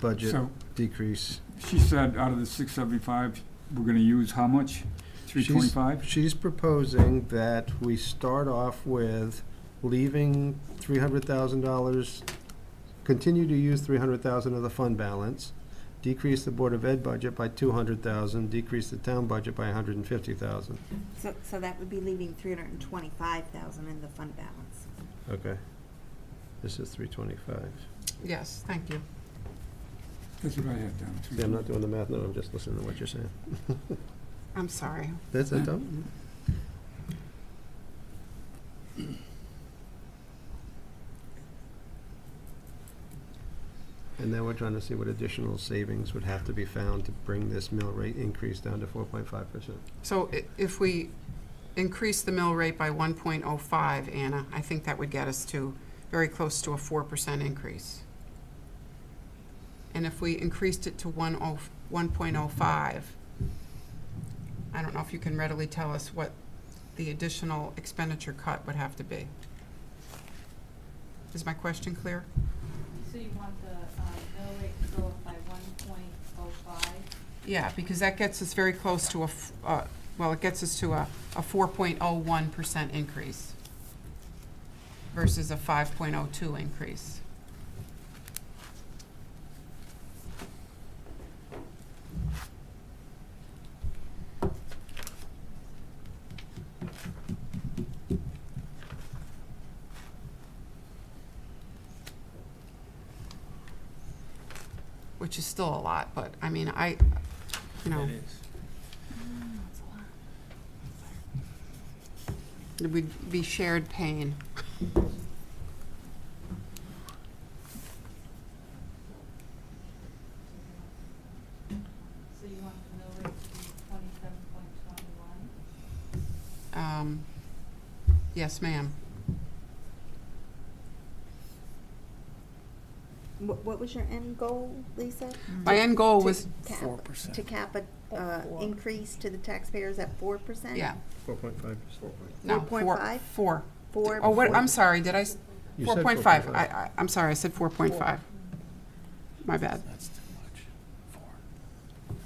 budget So decrease. she said out of the six seventy-five, we're gonna use how much? Three She's- twenty-five? She's proposing that we start off with leaving three hundred thousand dollars, continue to use three hundred thousand of the fund balance, decrease the Board of Ed budget by two hundred thousand, decrease the town budget by a hundred and fifty thousand. So, so that would be leaving three hundred and twenty-five thousand in the fund balance. Okay. This is three twenty-five. Yes, thank you. That's what I had down. See, I'm not doing the math, no, I'm just listening to what you're saying. I'm sorry. That's it, Tom? And now we're trying to see what additional savings would have to be found to bring this mill rate increase down to four point five percent. So i- if we increase the mill rate by 1.05, Anna, I think that would get us to very close to a 4% increase. And if we increased it to oh, 10 1.05, I don't know if you can readily tell us what the additional expenditure cut would have to be. Is my question clear? So you want the um, mill rate to go up by one point oh five? Yeah, because that gets us very close to a, f- uh, well, it gets us to a, a four point oh one percent increase versus a five point oh two increase. Which is still a lot, but, I mean, I, you know. It would be shared pain. So you want the mill rate to be twenty-seven point twenty-one? Um, Yes, ma'am. What, what was your end goal, Lisa? My end goal was, To cap- To cap a, uh, increase to the taxpayers at four percent? yeah, Four point five percent. no, four, 4.5? four. Four. Oh, what, I'm sorry, did I, s- You four said point five, I, I, I'm sorry, I said four point five. My bad. That's too much, four,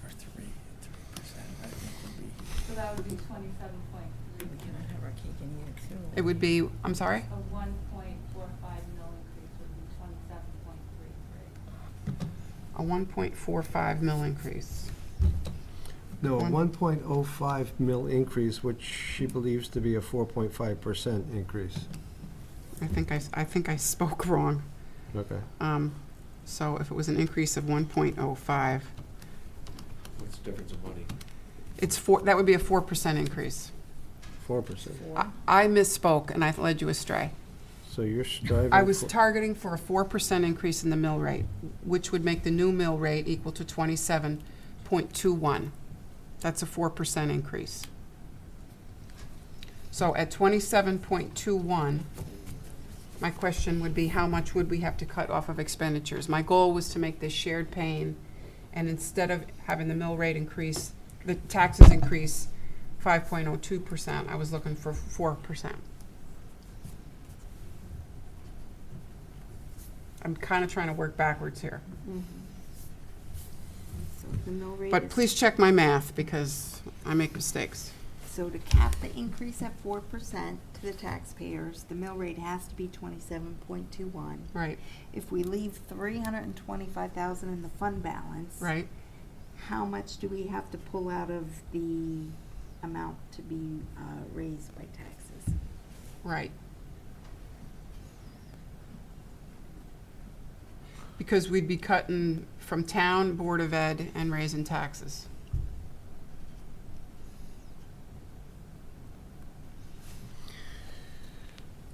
or three, three percent, I think would be. So that would be twenty-seven point three, It would be, I'm sorry? a one point four five mill increase would be twenty-seven point three three. A one point four five mil increase. No, a One- one point oh five mill increase, which she believes to be a four point five percent increase. I think I, s- I think I spoke wrong. Okay. Um, so if it was an increase of one point oh five, What's the difference of money? it's four, that would be a four percent increase. Four percent. I, I misspoke and I led you astray. So you're striving. I was for- targeting for a four percent increase in the mill rate, which would make the new mill rate equal to twenty-seven point two one. That's a four percent increase. So at twenty-seven point two one, my question would be, how much would we have to cut off of expenditures? My goal was to make this shared pain, and instead of having the mill rate increase, the taxes increase five point oh two percent, I was looking for four percent. I'm kind of trying to work backwards here. Mhm. So the mill rate But is- please check my math because I make mistakes. So to cap the increase at four percent to the taxpayers, the mill rate has to be twenty-seven point two one. Right, If we leave three hundred and twenty-five thousand in the fund balance. right. How much do we have to pull out of the amount to be uh, raised by taxes? Right. Because we'd be cutting from town, Board of Ed, and raising taxes.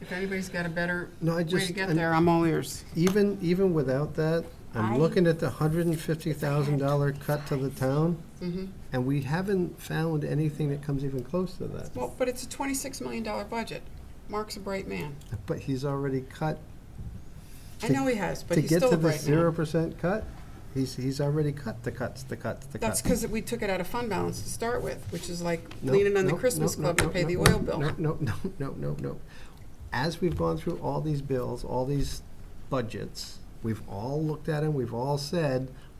If anybody's got a better No, I way just. to get and- there, I'm all ears. Even, even without that, I- I'm looking at the hundred and fifty thousand dollar cut to the town, Mhm. and we haven't found anything that comes even close to that. Well, but it's a $26 million budget. Mark's a bright man. But he's already cut, I To- know he has, but to he's get still to a the bright man. zero percent cut, he's, he's already cut the cuts, the cuts, the cuts. That's because we took it out of fund balance to start with, which is like No, leaning on the no, Christmas no, no, club to no, pay no, the no, oil bill. No, no, no, no, no, no. As we've gone through all these bills, all these budgets, We've all looked at them, we've all said,